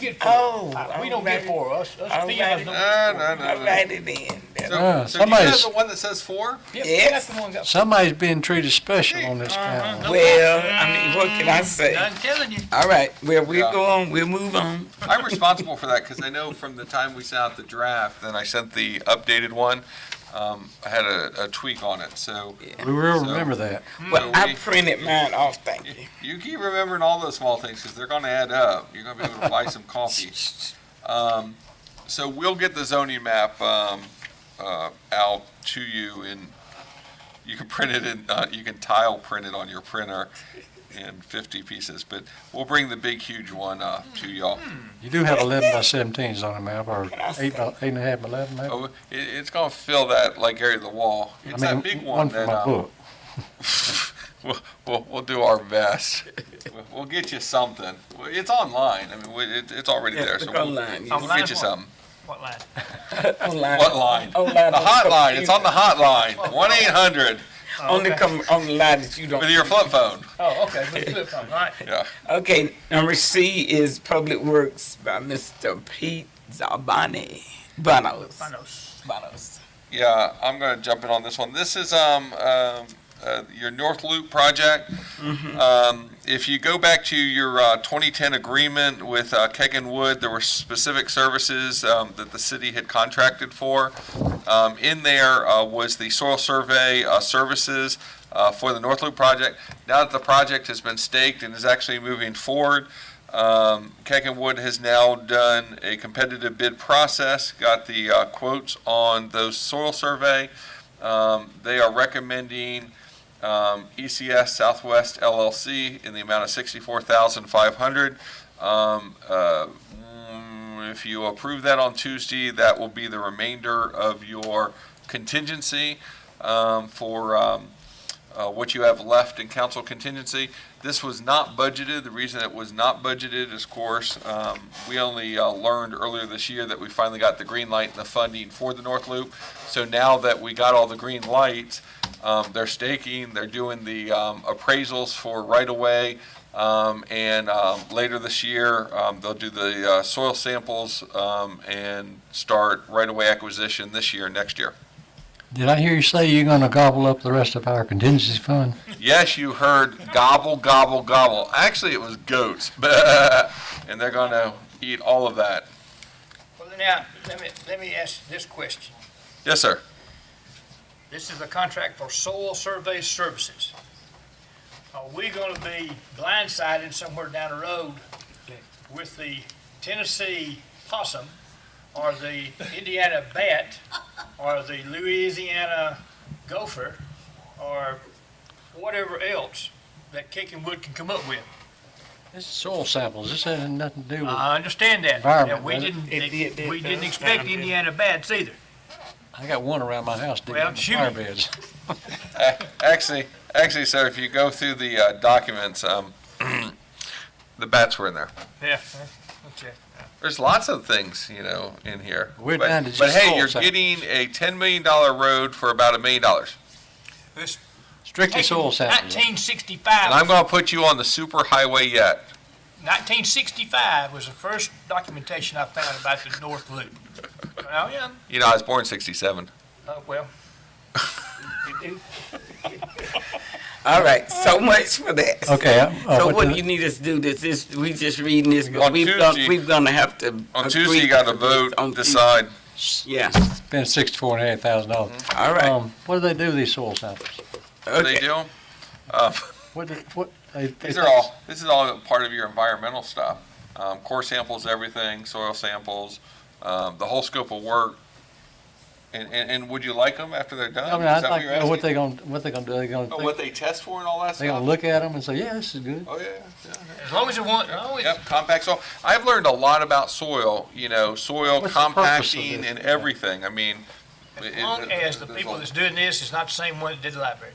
get four. Uh, Oh, we don't alrighty. get four. Us, us Alrighty. females don't. No, Ah, no, no, no. Alrighty then. So, Uh, so you have somebody's- the one that says four? Yeah, Yes. that's the one that- Somebody's being treated special on this Uh-huh. panel. No, Well, I mean, what can I say? Mm-hmm. I'm telling you. Mm-hmm. All right, well, we'll Yeah. go on, we'll move on. I'm responsible for that because I know from the time we sent out the draft, then I sent the updated one. Um, I had a, a tweak on it, so We will remember that. Well, I we- printed mine off, thank you. you keep remembering all those small things because they're going to add up. You're going to be able to buy some coffee. Um, so we'll get the zoning map um, uh, out to you, and you can print it in. Uh, you can tile print it on your printer in 50 pieces, but we'll bring the big, huge one uh, to y'all. You do have eleven by seventeens on the map, or eight by, eight and a half by eleven, maybe? Oh, it, it's gonna fill that like area of the wall. I It's mean, that big one one for that, my uh, book. we'll, we'll, we'll do our best. We'll- We'll get you something. Well, It's online. I mean, we- it, it's already Yeah, there, look so we'll, online, yes. we'll Online get you what? something. What line? Online. What line? The Online. hotline. It's on the hotline. One eight hundred Only come, on the line that you don't. with your flip phone. Oh, okay. Let's do it from. All right. Yeah. Okay, number C is Public Works by Mr. Pete Zabani. Bonos. Manos. Bonos. Yeah, I'm gonna jump in on this one. This is, um, um, uh, your North Loop project. Um, if you go back to your, uh, twenty-ten agreement with, uh, Kegan Wood, there were specific services, um, that the city had contracted for. Um, in there, uh, was the soil survey, uh, services, uh, for the North Loop project. Now that the project has been staked and is actually moving forward, um, Kecken Wood has now done a competitive bid process, got the uh, quotes on those soil survey. Um, They are recommending um, ECS Southwest LLC in the amount of sixty-four thousand five hundred. Um, uh, mm, If you approve that on Tuesday, that will be the remainder of your contingency um, for um, uh, what you have left in council contingency. This was not budgeted. The reason it was not budgeted is, of course, um, we only uh, learned earlier this year that we finally got the green light and the funding for the North Loop. So now that we got all the green lights, um, they're staking, they're doing the um, appraisals for right-of-way. um, And um, later this year, um, they'll do the uh, soil samples um, and start right-of-way acquisition this year, next year. Did I hear you say you're gonna gobble up the rest of our contingency fund? Yes, you heard gobble, gobble, gobble. Actually, it was goats, and they're going to eat all of that. Well, now, let me, let me ask this question. Yes, sir. This is a contract for soil survey services. Are we gonna be blindsided somewhere down the road with the Tennessee possum, or the Indiana bat, or the Louisiana gopher, or whatever else that Kicking Wood can come up with? This is soil samples, this has nothing to do Uh, with, I understand that. Environment, Now, We doesn't it? didn't, It did, did, we didn't does expect sound good. Indiana bats either. I got one around my house digging Well, in the shoot fire it. beds. Actually, actually, sir, if you go through the uh, documents, um, the bats were in there. Yeah, okay. There's lots of things, you know, in here. We're but, down to but just hey, soil you're samples. getting a ten million dollar road for about a million dollars, Strictly soil samples. Nineteen and I'm sixty-five, going to put you on the super highway yet. nineteen sixty-five was the first documentation I found about the North Loop. Well, yeah, You know, I was born '67. Oh, uh, well, All right, so Mm-hmm. much for that. Okay, uh, So what what the- you need us to do this is, we just reading this, but On we've gonna, Tuesday- we've gonna have to. On agree Tuesday, you got to to this vote, on Tuesday. decide. Yeah, Spend sixty-four and a half thousand dollars. Mm-hmm. all right, Um, what do they do with these soil samples? What They okay. do. Um, What, do- what, they? they- These are all, this is all part of your environmental stuff. Um, core samples, everything, soil samples, um, the whole scope of work. And, and, and would you like them after they're I done? mean, Is I'd that like what you're to know what asking? they gonna, what they gonna do, they gonna, Oh, What they think- test for and all that they gonna stuff? look at them and say, yeah, this is good. Oh, yeah, yeah. as long as it wasn't, as long as- Yep, compact soil. I've learned a lot about soil, you know, soil What's the purpose of compacting this? and everything. I mean. as it- long it- as the there's a- people that's doing this is not the same one that did the library.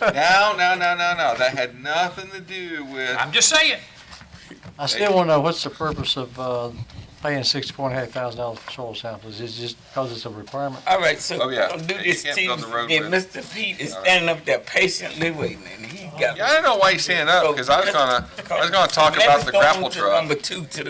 No, no, no, no, no. That had nothing to do with, I'm just saying, I still wanna know, what's the purpose of, uh, paying sixty-four and a half thousand dollars for soil samples? Is it just because it's a requirement? All right, so Oh, yeah. we'll do You this can't build the Tuesday. road Then Mr. Pete is standing up there patiently waiting, and he got. Yeah, I don't know why he's standing up, because I was gonna, I was gonna talk Let about us the go on grapple to truck. Number two to the